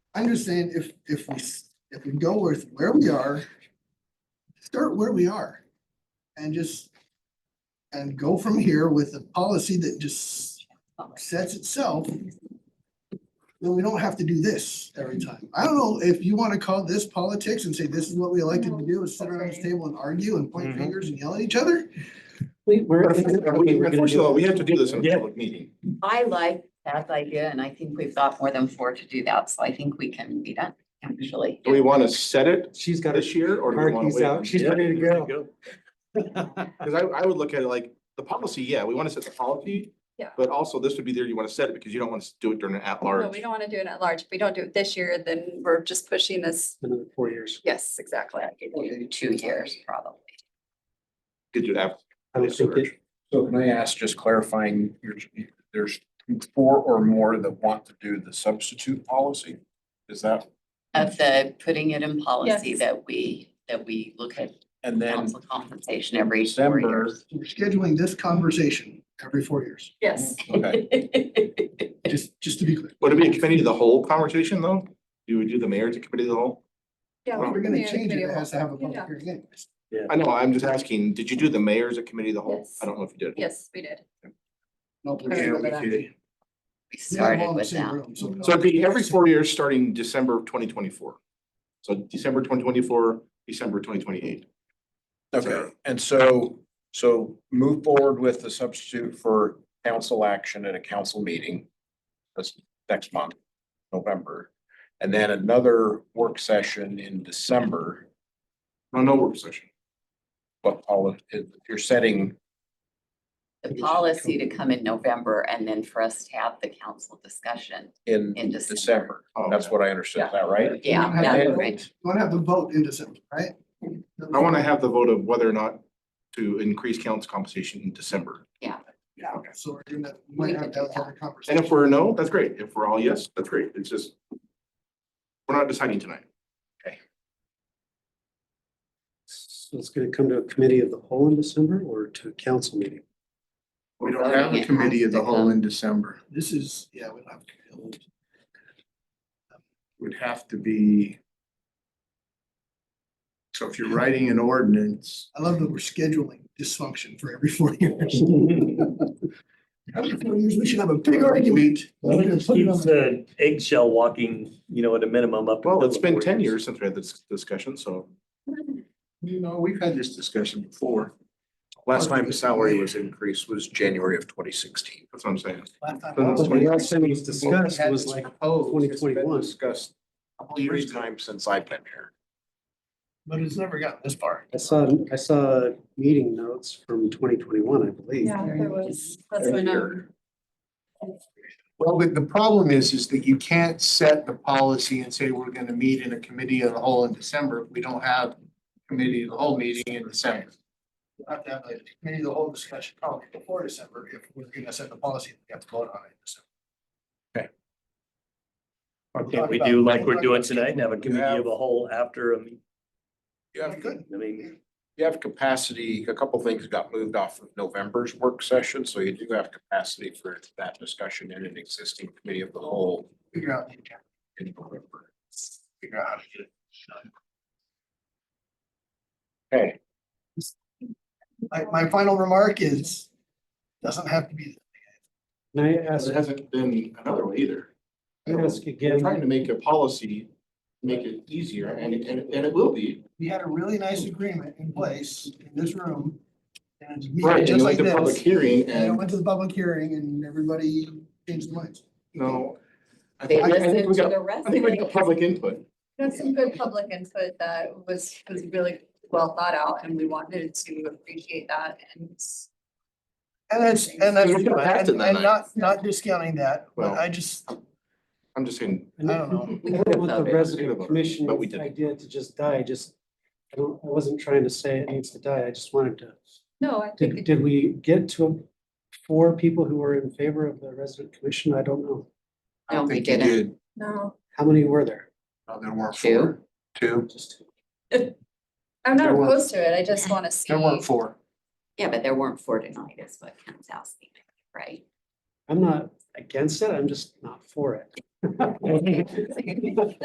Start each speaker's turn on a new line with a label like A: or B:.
A: I'm just saying, if, if we, s- if we go with where we are, start where we are and just, and go from here with a policy that just sets itself. Then we don't have to do this every time. I don't know if you want to call this politics and say this is what we elected to do, is sit around this table and argue and point
B: Mhm.
A: fingers and yell at each other.
C: We, we're.
D: But First of all, we have to do this in a
B: Yeah.
D: public meeting.
E: I like that idea and I think we've got more than four to do that, so I think we can be done, actually.
D: Do we want to set it
B: She's got her
D: this year or do we
B: car
D: want to
B: keys out.
D: wait?
B: She's ready to go.
D: Because I, I would look at it like, the policy, yeah, we want to set the policy.
F: Yeah.
D: But also this would be there, you want to set it because you don't want to do it during an
F: No,
D: at-large.
F: Oh, we don't want to do it at large. If we don't do it this year, then we're just pushing this.
B: Another four years.
F: Yes, exactly.
E: In Two years, probably.
D: Could do it after.
B: I would think it-
G: So can I ask, just clarifying, your- there's four or more that want to do the substitute policy? Is that,
E: Of the putting it in policy
F: Yes.
E: that we, that we look at
G: and then
E: council compensation every four
G: December,
E: years.
A: We're scheduling this conversation every four years,
F: Yes.
G: okay,
A: just, just to be clear.
D: Would it be a committee of the whole conversation though? Do we do the mayor as a committee of the whole?
F: Yeah,
A: If
F: we
A: we're
F: can do
A: gonna
F: the
A: change it,
F: committee
A: it
F: of
A: has to have a
F: Yeah.
A: public hearing anyways.
D: I know, I'm just asking, did you do the mayor as a committee of the whole?
F: Yes.
D: I don't know if you did.
F: Yes, we did.
A: Nope,
F: I
A: we can't
F: remember
A: do
F: that.
A: that.
E: We
A: We have all
E: started
A: in the
E: with
A: same
E: that.
A: room, So
D: So it'd be every four years, starting December of twenty twenty-four. So December twenty twenty-four, December twenty twenty-eight.
G: okay. And so, so move forward with the substitute for council action at a council meeting. That's next month, November, and then another work session in December.
D: No, no work session.
G: But all of, you're setting,
E: The policy to come in November and then for us to have the council discussion
G: in
E: in December.
G: December.
D: Oh,
G: That's
D: okay.
G: what I understood, is that right?
E: Yeah,
A: Yeah.
E: that's right.
A: You wanna have the vote in December, right?
D: I want to have the vote of whether or not to increase council compensation in December.
A: Yeah, okay, so we're gonna, we might have to have another
D: And if
A: conversation.
D: we're a no, that's great. If we're all yes, that's great. It's just we're not deciding tonight.
B: So it's gonna come to a committee of the whole in December or to a council meeting?
D: We don't
E: Voting
D: have a
E: it
D: committee
E: has
D: of the
E: to
D: whole
E: come.
D: in December.
A: This is, yeah, we don't have. to-
H: would have to be. So if you're writing an ordinance,
A: I love that we're scheduling dysfunction for every four years. Every four years, we should have a big argument. We're gonna
I: Keeps
A: put it on the-
I: the eggshell walking, you know, at a minimum up.
D: Well,
I: until
D: it's
I: the
D: been
I: four
D: ten years since we had this discussion, so
H: you know, we've had this discussion before. Last
D: last time,
H: time the salary was increased was January of twenty sixteen.
D: that's what I'm saying.
A: Last time I
B: But
A: was-
B: the last time it was discussed was like,
H: oh, Discussed a couple
G: Years
H: years ago.
G: time since I've been here.
A: But it's never gotten this far.
B: I saw, I saw meeting notes from twenty twenty-one, I believe.
F: Yeah, there was. That's
H: Every
F: when um, I-
H: year. Well, but the problem is, is that you can't set the policy and say we're gonna meet in a committee of the whole in December. if We don't have committee of the whole meeting in December.
A: We'll have to have a committee of the whole discussion probably before December if we're gonna set the policy, we have to vote on it in December.
I: Can't we do like we're doing tonight and have a committee of a whole after, a meet-
G: You have
A: Good.
I: I mean,
G: You have capacity, a couple things got moved off of November's work session, so you do have capacity for that discussion in an existing committee of the whole
A: Figure out the agenda.
G: in November.
A: figure out how to get it.
G: Okay.
A: My, my final remark is, doesn't have to be,
B: Can I ask,
D: There hasn't been another way either.
B: can I ask
D: They're
B: again?
D: trying to make a policy, make it easier and, and, and it will be.
A: we had a really nice agreement in place in this room. And it's meeting
D: Right, and
A: just
D: you
A: like
D: went to public
A: this,
D: hearing
A: and it
D: and,
A: went to the public hearing and everybody changed their minds.
D: no. I
E: They
D: think, I think
E: listen
D: we
E: to
D: got,
E: the
D: I think we
E: residents.
D: got public input.
F: That's some good public input that was, was really well thought out and we wanted to appreciate that and
A: And that's, and that's,
D: You could have passed it
A: and
D: that
A: and
D: night.
A: not, not discounting that, but
D: Well.
A: I just, I
D: I'm just saying,
A: don't know.
B: I don't want the resident
D: But we
B: commission
D: didn't.
B: idea to just die, I just, I don't- I wasn't trying to say it needs to die, I just wanted to.
F: no, I think.
B: Did, did we get to four people who were in favor of the resident commission? I don't know.
H: I don't
E: No, we
H: think you
E: didn't.
H: did.
F: No,
B: How many were there?
H: No, there weren't
E: Two.
H: four. Two.
B: Just two.
F: I'm not
B: There were-
F: opposed to it. I just want to see.
H: There weren't four.
E: Yeah, but there weren't four tonight is what Ken's asking, right?
B: I'm not against it, I'm just not for it.